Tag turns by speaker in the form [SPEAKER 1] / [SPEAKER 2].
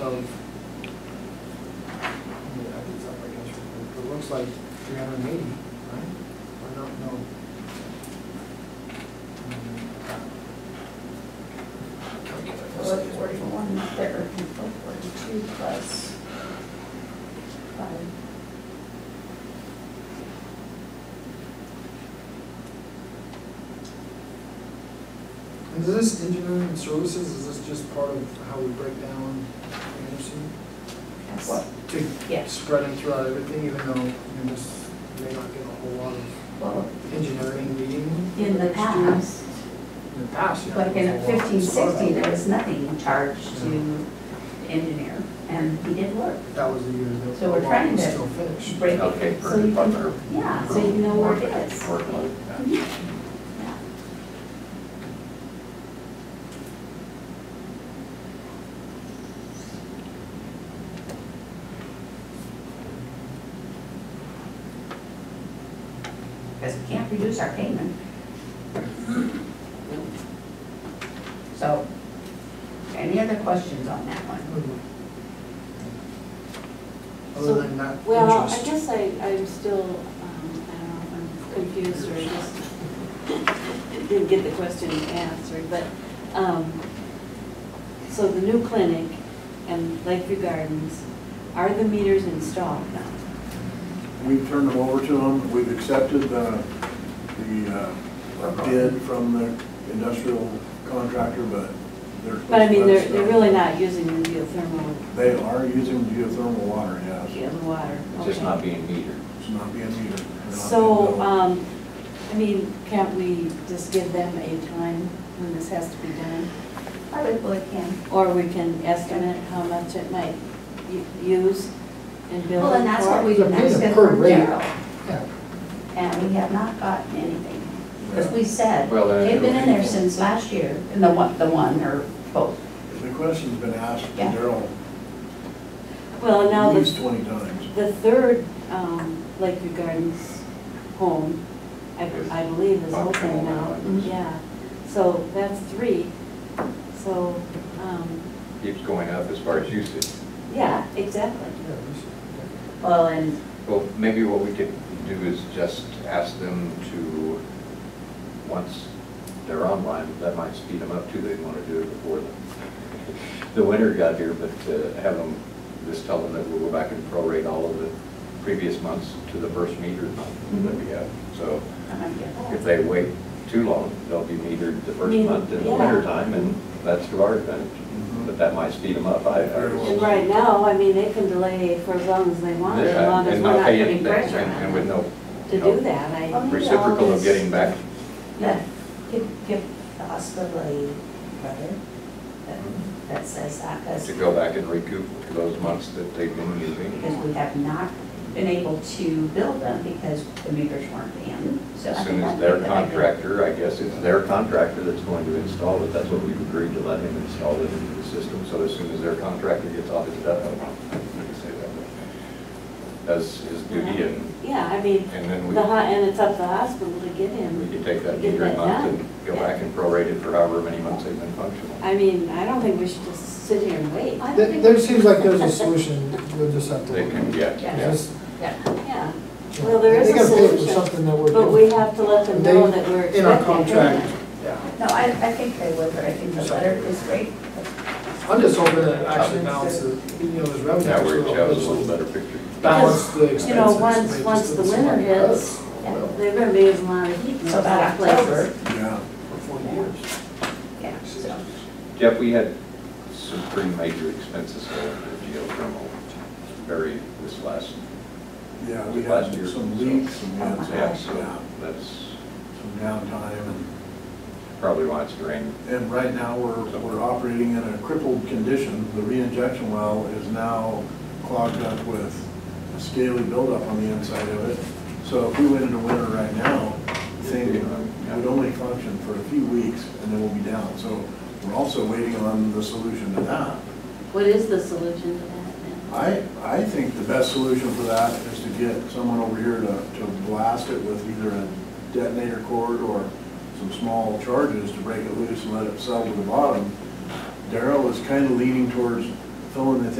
[SPEAKER 1] of, yeah, I think it's up against, it, but it looks like three hundred and eighty, right? Or not, no.
[SPEAKER 2] Four forty-one there, and four forty-two plus five.
[SPEAKER 1] And is this engineering services, is this just part of how we break down Anderson?
[SPEAKER 2] Yes.
[SPEAKER 1] What, to
[SPEAKER 2] Yes.
[SPEAKER 1] spread it throughout everything, even though, you know, this may not get a whole lot of
[SPEAKER 2] Well,
[SPEAKER 1] engineering meeting?
[SPEAKER 2] in the
[SPEAKER 1] next year?
[SPEAKER 2] past,
[SPEAKER 1] In the past, yeah.
[SPEAKER 2] like in
[SPEAKER 1] there's a lot of
[SPEAKER 2] fifteen,
[SPEAKER 1] stuff.
[SPEAKER 2] sixteen, there was nothing in charge to the engineer, and he did work.
[SPEAKER 1] That was the year that.
[SPEAKER 2] So we're
[SPEAKER 1] the lot
[SPEAKER 2] trying
[SPEAKER 1] was
[SPEAKER 2] to
[SPEAKER 1] Still finished.
[SPEAKER 2] Break
[SPEAKER 3] Okay,
[SPEAKER 2] it, so you
[SPEAKER 3] per-
[SPEAKER 2] can, yeah, so you know where it is.
[SPEAKER 3] Workload,
[SPEAKER 2] Yeah. Because we can't reduce our payment. So, any other questions on that one?
[SPEAKER 1] Other than that,
[SPEAKER 4] Well, I
[SPEAKER 1] interest.
[SPEAKER 4] guess I, I'm still, um, I don't know, if I'm confused or just didn't get the question answered, but, um, so the new clinic and Lakeview Gardens, are the meters installed now?
[SPEAKER 5] We've turned them over to them, we've accepted the, the uh, bid from the industrial contractor, but they're.
[SPEAKER 4] But I mean, they're, they're really not using the geothermal,
[SPEAKER 5] They are using geothermal water, yes.
[SPEAKER 4] in the water.
[SPEAKER 3] It's just
[SPEAKER 4] okay.
[SPEAKER 3] not being metered.
[SPEAKER 5] It's not being metered. They're not being
[SPEAKER 4] So,
[SPEAKER 5] billed.
[SPEAKER 4] um, I mean, can't we just give them a time when this has to be done?
[SPEAKER 2] Probably can.
[SPEAKER 4] Or we can estimate how much it might u- use and bill
[SPEAKER 2] Well, and that's what
[SPEAKER 4] it
[SPEAKER 2] we,
[SPEAKER 1] They're paying
[SPEAKER 2] that's
[SPEAKER 1] a
[SPEAKER 2] good
[SPEAKER 1] per
[SPEAKER 2] for
[SPEAKER 1] rate.
[SPEAKER 2] Gerald.
[SPEAKER 1] Yeah.
[SPEAKER 2] and we have not gotten anything. Because we said,
[SPEAKER 3] Well, then
[SPEAKER 2] they've been in there
[SPEAKER 3] it'll be-
[SPEAKER 2] since last year, and the one, the one or both.
[SPEAKER 5] The question's been asked,
[SPEAKER 2] Yeah.
[SPEAKER 5] Daryl,
[SPEAKER 4] for. Well, now
[SPEAKER 5] at least
[SPEAKER 4] the,
[SPEAKER 5] twenty times.
[SPEAKER 4] the third um, Lakeview Gardens home, I, I believe is
[SPEAKER 3] Up
[SPEAKER 4] open
[SPEAKER 3] home,
[SPEAKER 4] now,
[SPEAKER 3] mhm.
[SPEAKER 4] yeah. So that's three, so, um,
[SPEAKER 3] Keeps going up as far as usage.
[SPEAKER 4] yeah, exactly.
[SPEAKER 1] Yeah, we should-
[SPEAKER 2] Well, and
[SPEAKER 3] Well, maybe what we could do is just ask them to, once they're online, that might speed them up too. They'd want to do it before the, the winter got here, but uh, have them, just tell them that we'll go back and prorate all of the previous months to the first meter month that
[SPEAKER 2] Mm-hmm.
[SPEAKER 3] we have. So
[SPEAKER 2] I'm gonna get that.
[SPEAKER 3] if they wait too long, they'll be metered the first
[SPEAKER 4] Yeah.
[SPEAKER 3] month in the winter time, and that's to our advantage. But that might speed them up, I, I
[SPEAKER 5] Very well.
[SPEAKER 4] And right now, I mean, they can delay for as long as they want, as
[SPEAKER 3] Yeah,
[SPEAKER 4] long as
[SPEAKER 3] and
[SPEAKER 4] we're not
[SPEAKER 3] pay it
[SPEAKER 4] putting
[SPEAKER 3] back,
[SPEAKER 4] pressure
[SPEAKER 3] and- And
[SPEAKER 4] on
[SPEAKER 3] with
[SPEAKER 4] them
[SPEAKER 3] no.
[SPEAKER 4] to
[SPEAKER 3] no
[SPEAKER 4] do that. I,
[SPEAKER 2] Oh,
[SPEAKER 3] Reciprocal of getting back,
[SPEAKER 2] Let- give, give the hospital a letter that, that says that,
[SPEAKER 3] to
[SPEAKER 2] because,
[SPEAKER 3] go back and recoup those months that they've been
[SPEAKER 2] because
[SPEAKER 3] using.
[SPEAKER 2] we have not been able to build them because the meters weren't in. So I
[SPEAKER 3] As soon
[SPEAKER 2] think I
[SPEAKER 3] as their
[SPEAKER 2] think that I did-
[SPEAKER 3] contractor, I guess it's their contractor that's going to install it, that's what we've agreed to let him install it into the system. So as soon as their contractor gets off his death, I can say that. but That's his duty, and,
[SPEAKER 4] yeah, I mean,
[SPEAKER 3] and then we.
[SPEAKER 4] the, ho- and it's up to the hospital to get
[SPEAKER 3] We
[SPEAKER 4] him.
[SPEAKER 3] could take that
[SPEAKER 4] Get
[SPEAKER 3] meter
[SPEAKER 4] that
[SPEAKER 3] month
[SPEAKER 4] done.
[SPEAKER 3] and go back and prorate it for however many months they've been functional.
[SPEAKER 4] I mean, I don't think we should just sit here and wait.
[SPEAKER 2] I don't
[SPEAKER 1] There,
[SPEAKER 2] think-
[SPEAKER 1] there seems like there's a solution, we'll just have to.
[SPEAKER 3] They can, yeah,
[SPEAKER 2] Yeah.
[SPEAKER 3] yeah.
[SPEAKER 1] Just-
[SPEAKER 2] Yeah.
[SPEAKER 4] Yeah, Well, there is a
[SPEAKER 1] They gotta pay for
[SPEAKER 4] solution,
[SPEAKER 1] something that we're.
[SPEAKER 4] but we have to let them know that we're
[SPEAKER 1] In our
[SPEAKER 4] expecting
[SPEAKER 1] contract,
[SPEAKER 4] payment.
[SPEAKER 1] yeah.
[SPEAKER 2] No, I, I think they would, but I think the letter is great.
[SPEAKER 1] I'm just hoping that it actually balances, you know, there's revenue.
[SPEAKER 3] Now we're,
[SPEAKER 1] actually
[SPEAKER 3] shows a
[SPEAKER 1] will
[SPEAKER 3] little better picture.
[SPEAKER 1] Balance the
[SPEAKER 4] Because,
[SPEAKER 1] expenses.
[SPEAKER 4] you know, once-
[SPEAKER 1] but it
[SPEAKER 4] once
[SPEAKER 1] just
[SPEAKER 4] the
[SPEAKER 1] doesn't
[SPEAKER 4] winter
[SPEAKER 1] seem like
[SPEAKER 4] hits,
[SPEAKER 1] us.
[SPEAKER 2] yeah.
[SPEAKER 1] Well,
[SPEAKER 4] They're gonna be using a lot of heat in
[SPEAKER 2] So by
[SPEAKER 4] those places.
[SPEAKER 2] October,
[SPEAKER 5] Yeah,
[SPEAKER 1] For forty years.
[SPEAKER 2] yeah, so.
[SPEAKER 3] Jeff, we had some pretty major expenses there for geothermal, very, this last,
[SPEAKER 5] yeah, we
[SPEAKER 3] Last
[SPEAKER 5] had
[SPEAKER 3] year.
[SPEAKER 5] some leaks and we had some,
[SPEAKER 3] yeah, so
[SPEAKER 5] yeah,
[SPEAKER 3] that's
[SPEAKER 5] some downtime and
[SPEAKER 3] probably why it's drained.
[SPEAKER 5] And right now, we're, we're operating in a crippled condition. The reinjection well is now clogged up with a scaly buildup on the inside of it. So if we went into winter right now, thing would only function for a few weeks and then we'll be down. So we're also waiting on the solution to that.
[SPEAKER 4] What is the solution to that now?
[SPEAKER 5] I, I think the best solution for that is to get someone over here to, to blast it with either a detonator cord or some small charges to break it loose and let it settle to the bottom. Daryl is kind of leaning towards fill in the